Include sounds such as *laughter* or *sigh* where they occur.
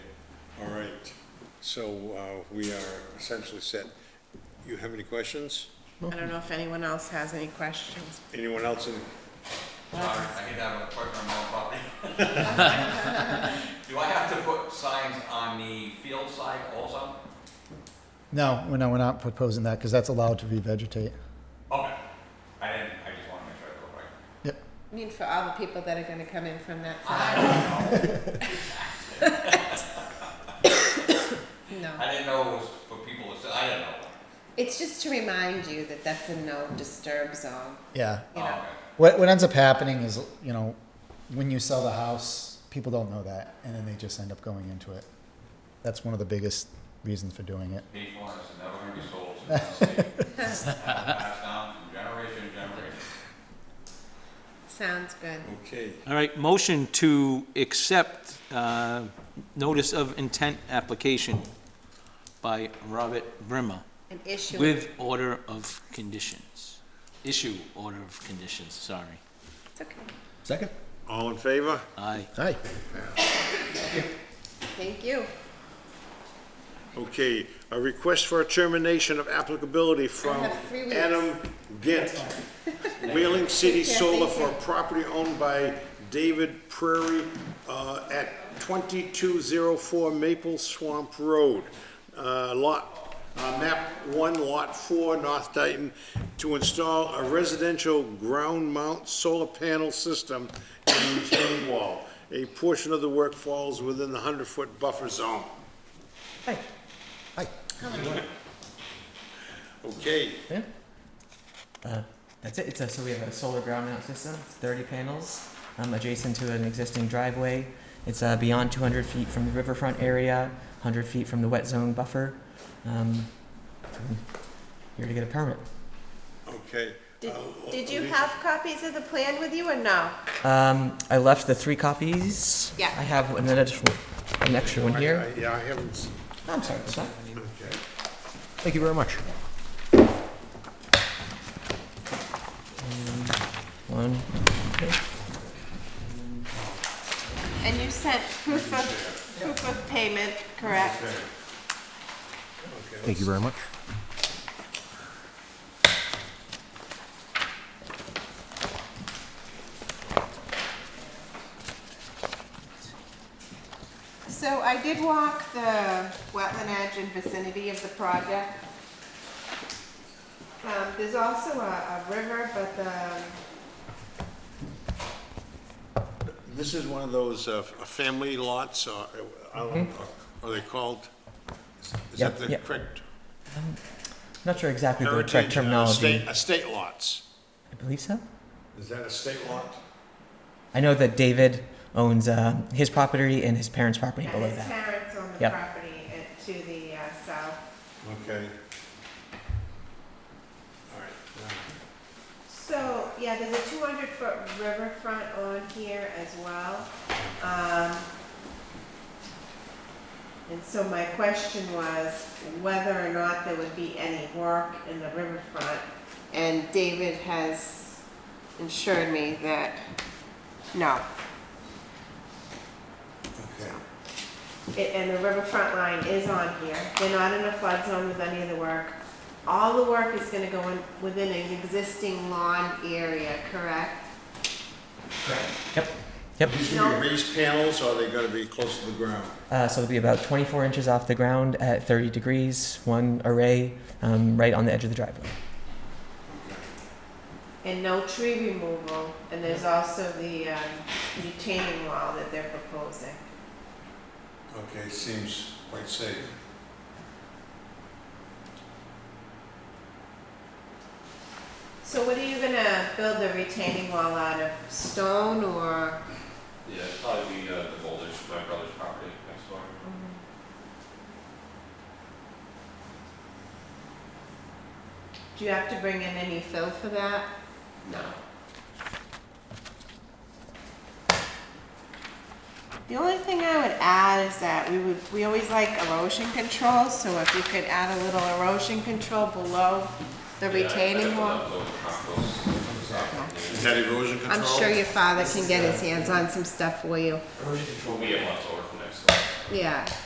So uh, we are essentially set. You have any questions? I don't know if anyone else has any questions. Anyone else in, Sorry, I get that with a question on my own *laughs* property. Do I have to put signs on the field side also? No, we're not, we're not proposing that because that's allowed to revegetate. Okay, I didn't, I just want to make sure I go right. Yep. I mean, for all the people that are gonna come in from that I side, don't know, no. I didn't know it was for people to, I didn't know. It's just to remind you that that's a no disturb zone, Yeah. you Oh, know? okay. What, what ends up happening is, you know, when you sell the house, people don't know that and then they just end up going into it. That's one of the biggest reasons for doing it. These ones are never gonna be sold to the *laughs* state. Passed down from generation to generation. Sounds good. okay, All right, motion to accept uh, notice of intent application by Robert Brimmer An issue. with order of conditions. Issue order of conditions, sorry. It's okay. Second? all in favor? Aye. Aye. Thank you. Okay, a request for a termination of applicability from have three weeks. Adam Gint, Whaling City Solar for a property owned by David Prairie uh, at 2204 Maple Swamp Road, uh, lot, uh, map 1, lot 4, North Dayton, to install a residential ground mount solar panel system and retaining wall. A portion of the work falls within the 100-foot buffer zone. Aye. Aye. Okay, Yeah. That's it. It's a, so we have a solar ground mount system. It's 30 panels, um, adjacent to an existing driveway. It's uh, beyond 200 feet from the riverfront area, 100 feet from the wet zone buffer. Um, here to get a permit. Okay. Did, Uh, did you Lisa, have copies of the plan with you or no? Um, I left the three copies. Yeah. I have an additional, an extra one I- here. I- Yeah, I haven't, s- Oh, I'm sorry. it's not- okay. Thank you very much. Um, One. And you sent proof of, proof of payment, correct? Thank you very much. So I did walk the wetland edge and vicinity of the project. Um, there's also a, a river, but the, This is one of those uh, f- family lots, uh, I don't- Mm-hmm. uh, are they called? Is- Is Yeah, that the yeah. correct Not sure exactly the heritage? correct uh, terminology. estate- Estate lots. I believe so. Is that a state lot? I know that David owns uh, his property and his parents' property and below his that. parents on the Yep. property uh, to the uh, south. Okay. All right. So, yeah, there's a two hundred foot riverfront on here as well. Um, and so my question was whether or not there would be any work in the riverfront. And David has assured me that, no. Okay. It- And the riverfront line is on here. They're not in a flood zone with any of the work. All the work is gonna go in, within an existing lawn area, correct? Yep. Yep. These gonna be raised panels, or are they gonna be close to the ground? Uh, so it'll be about 24 inches off the ground at 30 degrees, one array um, right on the edge of the driveway. And no tree removal, and there's also the um, retaining wall that they're proposing. Okay, seems quite safe. So what are you gonna build the retaining wall out of, stone or? Yeah, it'd probably be uh, the Boulders, my brother's property next door. Mm-hmm. Do you have to bring in any fill for that? No. The only thing I would add is that we would, we always like erosion control, so if you could add a little erosion control below the retaining wall. Is that erosion control? I'm sure your father can get his hands on some stuff for you. Will be a month over from next door. Yeah,